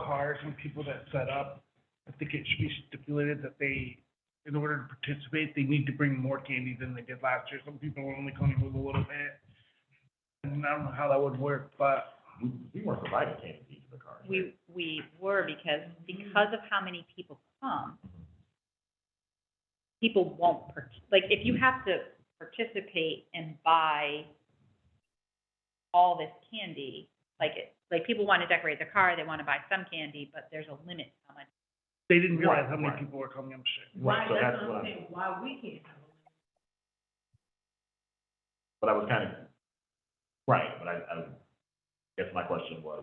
require some people that set up, I think it should be stipulated that they, in order to participate, they need to bring more candy than they did last year. Some people are only coming with a little bit. And I don't know how that would work, but We, we weren't providing candy to each of the cars. We, we were because, because of how many people come, people won't, partic- like, if you have to participate and buy all this candy, like, it like, people want to decorate their car, they want to buy some candy, but there's a limit to how much. they didn't realize how many Right, right. people were coming, I'm sure. Right, so that's what I'm, saying, why we can't have a but I was kind of, right, but I, I guess my question was,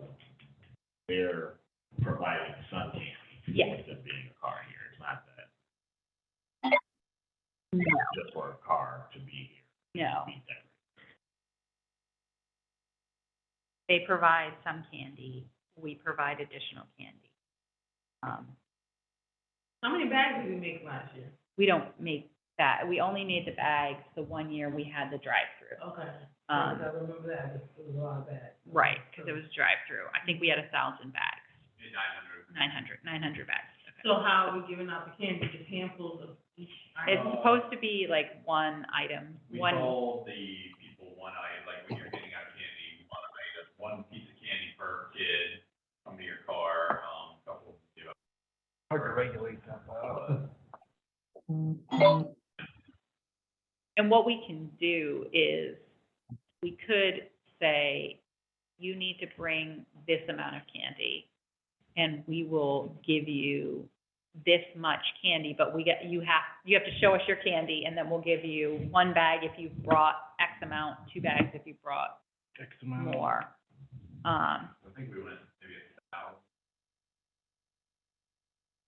they're providing sun candy. Yeah. With it being a car here, it's not that. Just for a car to be here, No, be decorated. they provide some candy, we provide additional candy. Um, How many bags did we make last year? we don't make that, we only made the bags the one year we had the drive-through. Okay. Um, Because I remember that, it was a lot of bags. Right, because it was drive-through. I think we had a thousand bags. Nine hundred. Nine hundred, nine hundred bags. So how are we giving out the candy, just handfuls of each It's item? supposed to be like one item, We one, told the people one item, like when you're getting out candy, one item, one piece of candy per kid, come to your car, um, couple, you know. Hard to regulate that, but uh, I don't know. and what we can do is, we could say, you need to bring this amount of candy, and we will give you this much candy, but we get, you have, you have to show us your candy, and then we'll give you one bag if you've brought X amount, two bags if you've brought X amount. more. Um, I think we went maybe a thousand.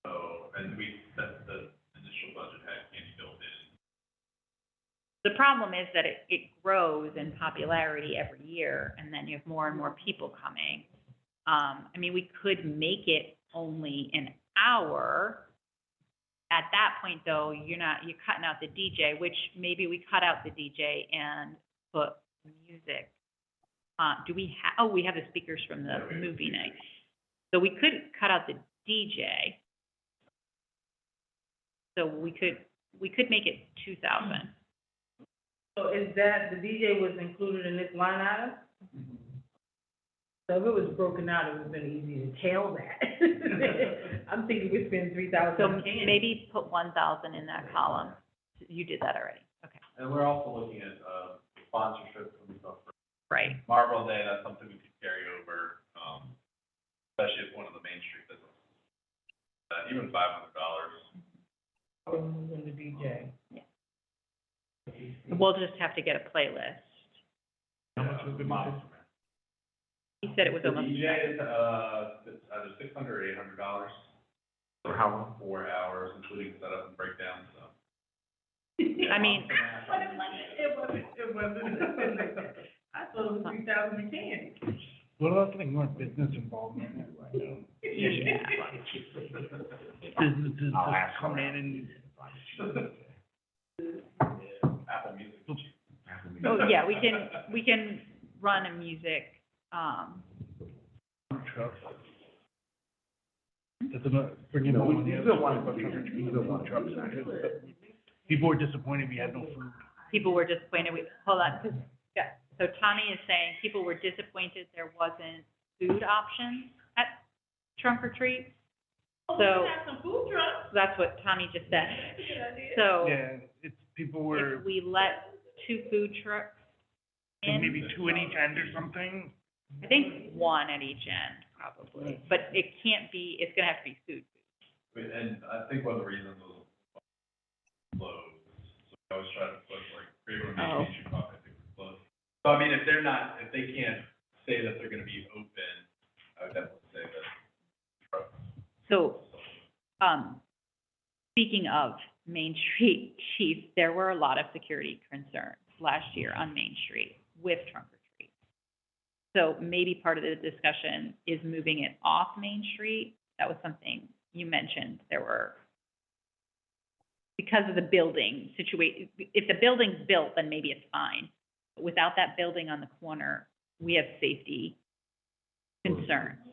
So, and we, set the initial budget had candy built in, The problem is that it, it grows in popularity every year, and then you have more and more people coming. Um, I mean, we could make it only an hour. At that point, though, you're not, you're cutting out the DJ, which maybe we cut out the DJ and put music. Uh, do we ha, oh, we have the speakers from the movie night. So we could cut out the DJ. So we could, we could make it two thousand. So is that, the DJ was included in this line item? So if it was broken out, it would have been easy to tell that. I'm thinking we spend three thousand So on candy. maybe put one thousand in that column. You did that already. Okay. And we're also looking at, uh, sponsorship from stuff for Right. Marvel Day, that's something we could carry over, um, especially if one of the Main Street businesses. Uh, even five hundred dollars, We're moving the DJ. Yeah. We'll just have to get a playlist. How much uh, was the Miles. He said it was The almost. DJ is, uh, it's either six hundred or eight hundred dollars, For how long? four hours, including setup and breakdown, so. I mean, But it wasn't, it wasn't, it wasn't. I told him three thousand in candy. What about getting more business involvement? yeah. Businesses I'll that ask come in around. and Apple Music. So, Oh, yeah, we can, we can run a music, um, trucks. That's another, bringing No, up we- one of the we other. still wanted food trucks. We still wanted trucks. People were disappointed we had no food. people were disappointed. We, hold on, 'cause- yeah. So Tommy is saying people were disappointed there wasn't food options at trunk or treat. Oh, we So- can have some food trucks. That's what Tommy just said. That's a good idea. So Yeah, it's, people were, if we let two food trucks in. maybe two at each end or something. I think one at each end, probably, but it can't be, it's gonna have to be food. And I think one of the reasons was closed, so I always try to push like, create a Oh. nation I think we're closed. So I mean, if they're not, if they can't say that they're gonna be open, I would definitely say that. So, um, speaking of Main Street chief, there were a lot of security concerns last year on Main Street with trunk or treat. So maybe part of the discussion is moving it off Main Street. That was something you mentioned. There were, because of the building situation, if the building's built, then maybe it's fine. But without that building on the corner, we have safety concerns.